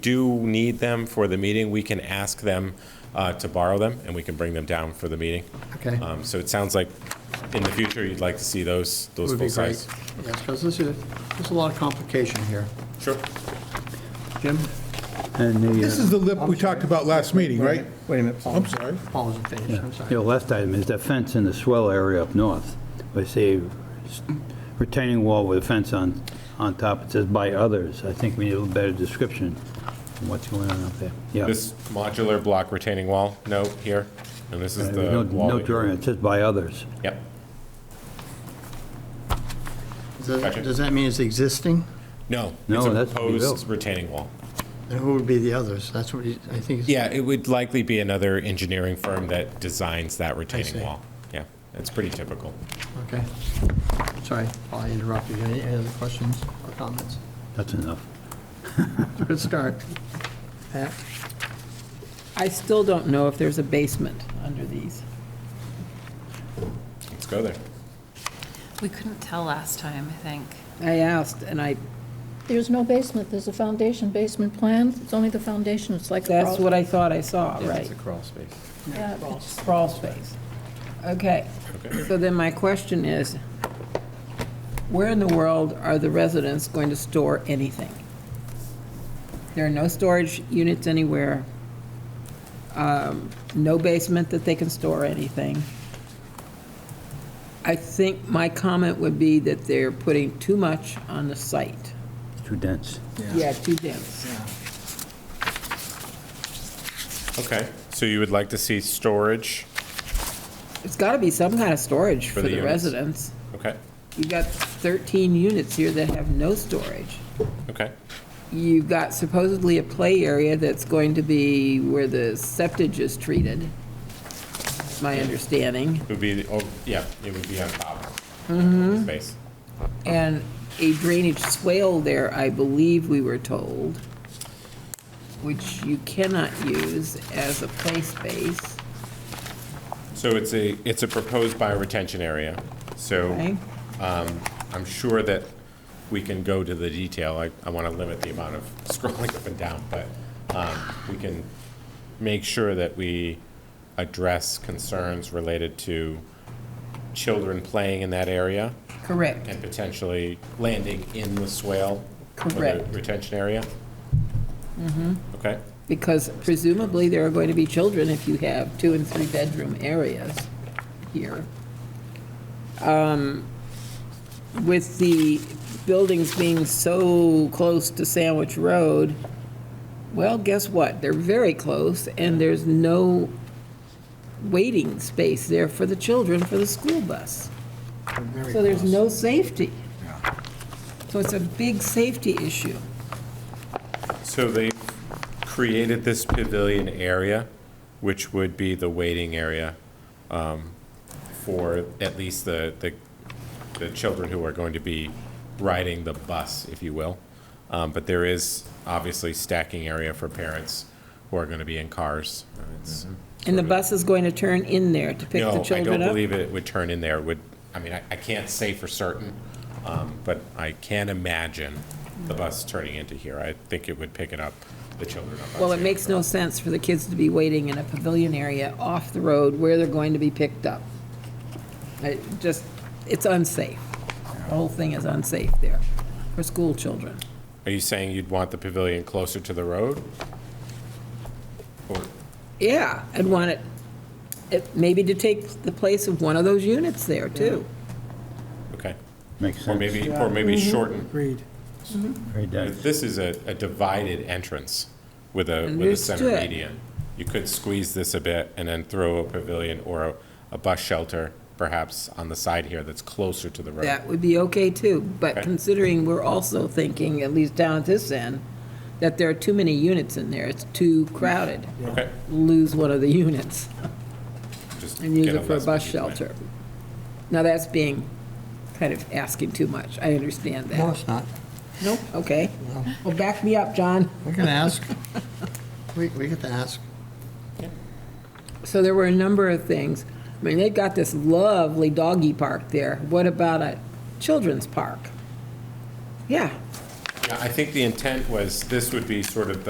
do need them for the meeting, we can ask them uh, to borrow them, and we can bring them down for the meeting. Okay. Um, So it sounds like in the future, you'd like to see those, those Would be full great. size. Yes, because this is, there's a lot of complication here. Sure. Jim? And the, This is the lip we talked about last meeting, right? wait a minute. I'm sorry. Paul isn't finished, I'm The sorry. last uh, item is the fence in the swell area up north. I say retaining wall with a fence on, on top. It says by others. I think we need a little better description of what's going on up there. Yeah. This modular block retaining wall note here, and this Uh, is Uh, No the wall. no we- drawing, it says by others. Yep. Does that- Does that mean it's existing? No. No, it's a that's what we built. Proposed retaining wall. And who would be the others? That's what he- I think. is- Yeah, it would likely be another engineering firm that designs that see. retaining wall. Yeah, that's pretty typical. Okay. Sorry, Paul, I interrupted you. Any any other questions or comments? That's enough. Good start. Pat? I still don't know if there's a basement under these. Let's go there. We couldn't tell last time, I think. I asked, and I, There's no basement, there's a foundation basement plan, it's only the foundation, it's like a crawl. that's what I thought I saw, right? crawl space. Yeah, it's- Crawl space. Okay. So then my question is, where in the world are the residents going to store anything? There are no storage units anywhere, um, no basement that they can store anything. I think my comment would be that they're putting too much on the site. It's too dense. Yeah, too dense. Okay, so you would like to see storage, It's got to be some kind of storage for the the units. residents. okay, You've got 13 units here that have no storage. okay, You've got supposedly a play area that's going to be where the septage is treated, my understanding, it would be, the- oh, yeah, it would be on top. Mm-hmm. Space, and a drainage swale there, I believe we were told, which you cannot use as a play space, so it's a, it's a proposed bioretention area, so. okay? Um, I'm sure that we can go to the detail. I, I want to limit the amount of scrolling up and down, but um, we can make sure that we address concerns related to children playing in that area Correct. and potentially landing in the swale or the Correct. Mm-hmm. retention area. Okay, Because presumably there are going to be children if you have two and three bedroom areas here. Um, With the buildings being so close to Sandwich Road, well, guess what? They're very close and there's no waiting space there for the children for the school bus. So there's no safety. So it's a big safety issue. so they created this pavilion area, which would be the waiting area um, for at least the, the, the children who are going to be riding the bus, if you will. Um, but there is obviously stacking area for parents who are going to be in cars. Uh, It's, And the bus is going to turn in there to pick the no, I children don't up? believe it would turn in there, would, I mean, I, I can't say for certain, um, but I can imagine the bus turning into here. I think it would pick it up, the children up. on Well, it Sand makes Road. no sense for the kids to be waiting in a pavilion area off the road where they're going to be picked up. It just, it's unsafe. The whole thing is unsafe there for school children. Are you saying you'd want the pavilion closer to the road? Or, Yeah, I'd want it, it, maybe to take the place of one of those units there too. okay. Makes Or sense. maybe, or maybe shorten. Mm-hmm. Agreed. Very dense. This is a, a divided entrance with a, with a center Understood. median. You could squeeze this a bit and then throw a pavilion or a, a bus shelter perhaps on the side here that's closer to the road. That would be okay too, but Okay. considering we're also thinking, at least down at this end, that there are too many units in there, it's too crowded. Okay, Lose one of the units. just. and use get it for a less bus busy plan. shelter. Now, that's being kind of asking too much, I understand No, that. it's not. Nope, okay. Well, back me up, John. We can ask. We, we get to ask. So there were a number of things. I mean, they've got this lovely doggy park there. What about a children's park? Yeah, Yeah, I think the intent was this would be sort of the